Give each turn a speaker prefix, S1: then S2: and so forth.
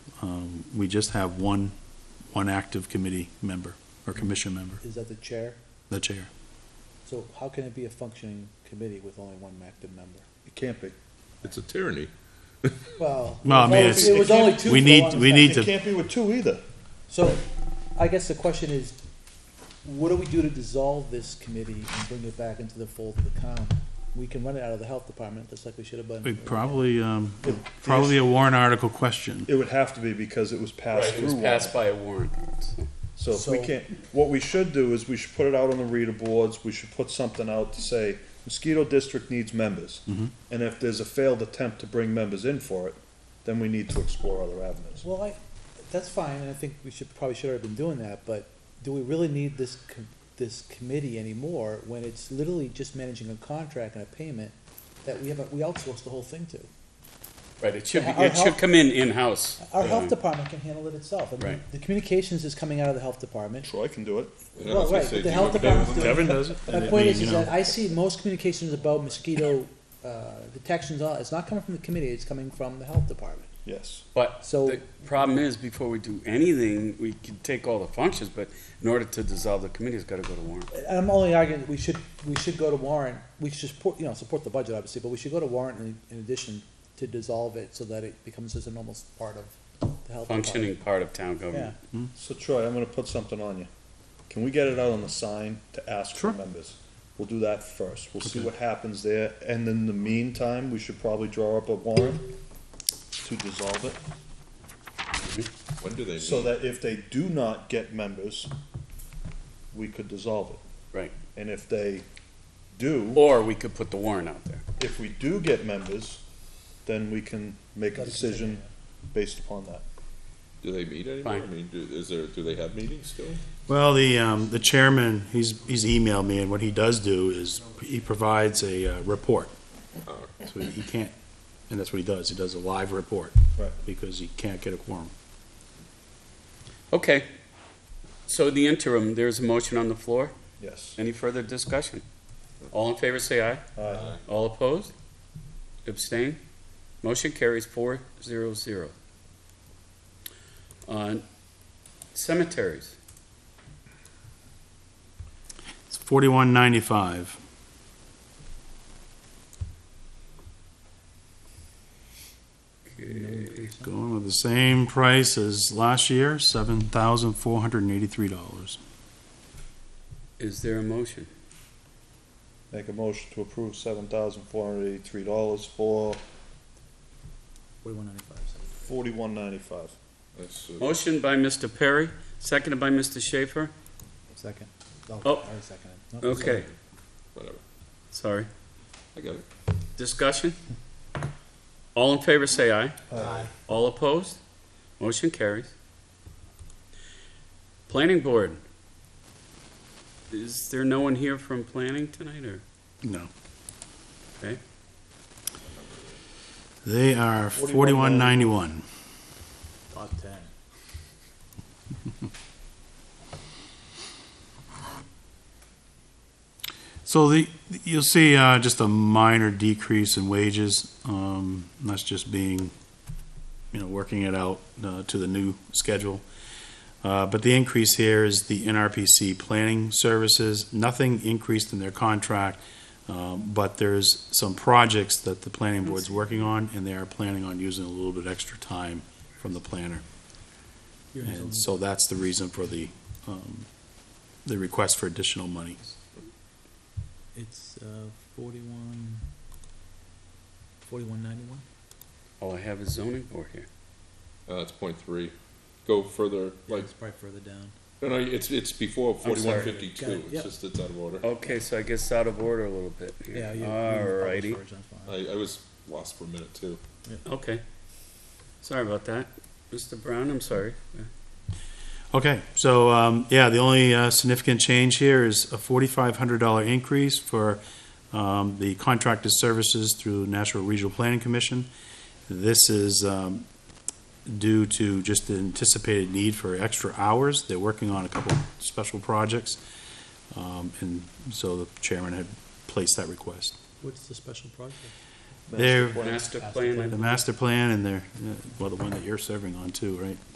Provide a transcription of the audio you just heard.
S1: Um, We just have one, one active committee member or commission member,
S2: Is that the chair?
S1: the chair.
S2: So how can it be a functioning committee with only one active member? It can't be.
S3: It's a tyranny.
S2: Well.
S1: Well, I mean,
S2: it
S1: it's-
S2: was- It was only two.
S1: we
S2: for
S1: need-
S2: one
S1: we need
S2: second.
S1: to-
S4: Can't be with two either.
S2: So I guess the question is, what do we do to dissolve this committee and bring it back into the fold of the town? We can run it out of the health department, just like we should have
S1: We
S2: done.
S1: Probably, um, probably a warrant article question.
S4: It would have to be because it was passed
S5: Right, it
S4: through
S5: was
S4: one.
S5: passed by a warrant.
S4: So if we
S2: So-
S4: can't, what we should do is we should put it out on the reader boards, we should put something out to say mosquito district needs members.
S1: Mm-hmm.
S4: And if there's a failed attempt to bring members in for it, then we need to explore other avenues.
S2: Well, I, that's fine, and I think we should, probably should have been doing that, but do we really need this, com- this committee anymore when it's literally just managing a contract and a payment that we haven't, we outsource the whole thing to?
S5: Right, it should, be-
S2: Our
S5: it should
S2: health-
S5: come in in-house. Um,
S2: Our
S5: Yeah.
S3: Um,
S2: health department can handle it itself. I mean,
S5: Right.
S2: The communications is coming out of the health department.
S4: Troy can do it.
S3: Yeah, I
S2: Well,
S3: was gonna
S2: right,
S3: say,
S2: but
S3: do
S2: the
S3: you
S2: health
S3: want to-
S2: department's doing.
S1: Kevin does it.
S2: My point is, is that I see most communications about mosquito, uh, detections, all- it's not coming from the committee, it's coming from the health department.
S4: Yes.
S5: But
S2: So-
S5: the problem is, before we do anything, we can take all the functions, but in order to dissolve the committee, it's gotta go to warrant.
S2: And I'm only arguing that we should, we should go to warrant, we should support, you know, support the budget obviously, but we should go to warrant in, in addition to dissolve it so that it becomes just an almost part of the health department.
S5: Functioning part of town
S2: Yeah,
S5: government.
S4: So Troy, I'm gonna put something on you. Can we get it out on the sign to ask for
S1: Sure.
S4: members? We'll do that first. We'll see
S1: Okay.
S4: what happens there. And in the meantime, we should probably draw up a warrant to dissolve it.
S3: When do they meet?
S4: So that if they do not get members, we could dissolve it.
S5: Right.
S4: And if they do,
S5: Or we could put the warrant out there.
S4: if we do get members, then we can make a
S2: Gotta
S4: decision based upon that.
S3: Do they meet anymore? I
S5: Fine.
S3: mean, do, is there, do they have meetings still?
S1: Well, the, um, the chairman, he's, he's emailed me, and what he does do is he provides a, uh, report.
S3: Oh.
S1: So he- he can't, and that's what he does. He does a live report.
S4: Right.
S1: Because he can't get a quorum.
S5: Okay. So in the interim, there's a motion on the floor.
S4: Yes.
S5: Any further discussion? All in favor, say aye.
S4: Aye.
S5: All opposed? Abstain? Motion carries four zero zero. On cemeteries,
S1: It's forty-one ninety-five.
S5: Uh,
S1: Going with the same price as last year, seven thousand four hundred and eighty-three dollars.
S5: is there a motion?
S4: Make a motion to approve seven thousand four hundred eighty-three dollars for
S2: forty-one ninety-five.
S4: forty-one ninety-five.
S3: That's, uh,
S5: Motion by Mr. Perry, seconded by Mr. Schaefer.
S2: Second. Oh,
S5: Oh.
S2: I already seconded. No,
S5: Okay,
S3: whatever.
S5: sorry.
S3: I got it.
S5: Discussion? All in favor, say aye.
S2: Aye.
S5: All opposed? Motion carries. Planning Board. Is there no one here from planning tonight, or?
S1: No.
S5: Okay.
S1: They are forty-one ninety-one.
S4: $41.91.
S2: Top ten.
S1: So the, you'll see, uh, just a minor decrease in wages, um, and that's just being, you know, working it out, uh, to the new schedule. Uh, but the increase here is the NRPC planning services, nothing increased in their contract, um, but there's some projects that the planning board's working on, and they are planning on using a little bit extra time from the planner. And so that's the reason for the, um, the request for additional money.
S6: It's uh, 41, 4191.
S5: All Oh, I have is zoning board here.
S3: Uh, it's point three. Go further, like,
S6: it's probably further down.
S3: no, no, it's, it's before
S5: I'm sorry.
S3: forty-one
S6: Got
S3: fifty-two.
S6: it,
S3: It's
S6: yep.
S3: just, it's out of order.
S5: Okay, so I guess out of order a little bit. here.
S6: Yeah. you- you can publish
S5: Alrighty,
S6: first, that's fine.
S3: I, I was lost for a minute too.
S5: okay. Sorry about that. Mr. Brown, I'm sorry.
S1: Okay, so, um, yeah, the only, uh, significant change here is a forty-five hundred dollar increase for, um, the contracted services through National Regional Planning Commission. This is, um, due to just the anticipated need for extra hours. They're working on a couple special projects. Um, and so the chairman had placed that request.
S6: What's the special project?
S5: Master plan, I
S1: uh, The master plan and their, well, the one that you're serving on too, right?